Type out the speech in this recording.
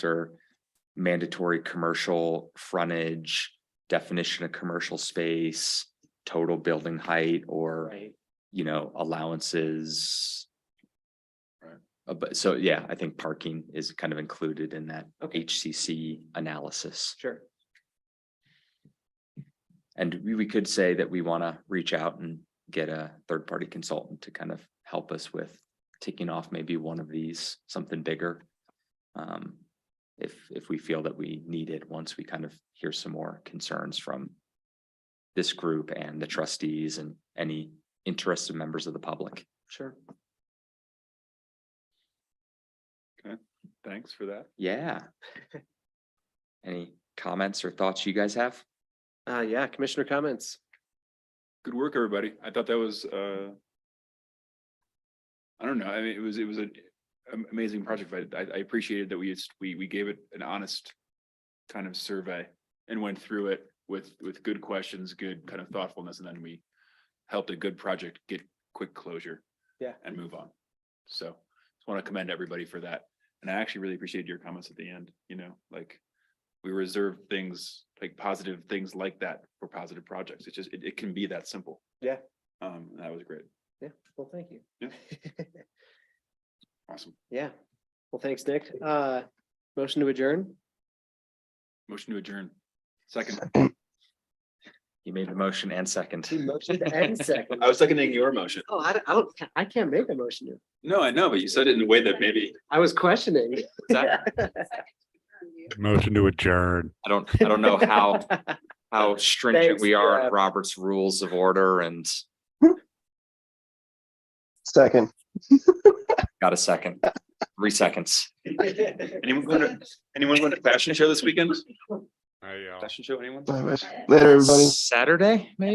after mandatory commercial frontage, definition of commercial space, total building height or, Right, you know, allowances. Right. Uh, But so, yeah, I think parking is kind of included in that okay, HCC analysis. sure. And we, we could say that we want to reach out and get a third party consultant to kind of help us with ticking off maybe one of these, something bigger. Um, if, if we feel that we need it, once we kind of hear some more concerns from this group and the trustees and any interested members of the public. Sure. Thanks for that. Yeah. Any comments or thoughts you guys have? Uh, yeah, commissioner comments. Good work, everybody. I thought that was, uh. I don't know. I mean, it was, it was an am- amazing project, but I, I appreciated that we just, we, we gave it an honest. Kind of survey and went through it with, with good questions, good kind of thoughtfulness, and then we. Helped a good project get quick closure. Yeah. And move on. So just want to commend everybody for that. And I actually really appreciated your comments at the end, you know, like. we reserve things like positive things like that for positive projects. It's just, it, it can be that simple. Yeah. Um, that was great. Yeah, well, thank you. Awesome. Yeah, well, thanks, Nick. Uh, motion to adjourn? Motion to adjourn. Second. You made the motion and second. Motion and second. I was seconding your motion. Oh, I, don't- I don't, I can't make a motion. to- No, I know, but you said it in a way that maybe. I was questioning. Motion to adjourn. I don't, I don't know how how stringent Thanks, we are Jeff. in Robert's rules of order and Second. got a second, three seconds. Anyone going to, anyone going to fashion show this weekend? I, uh, Fashion show, anyone? Bye, guys. Later, everybody. Saturday, maybe?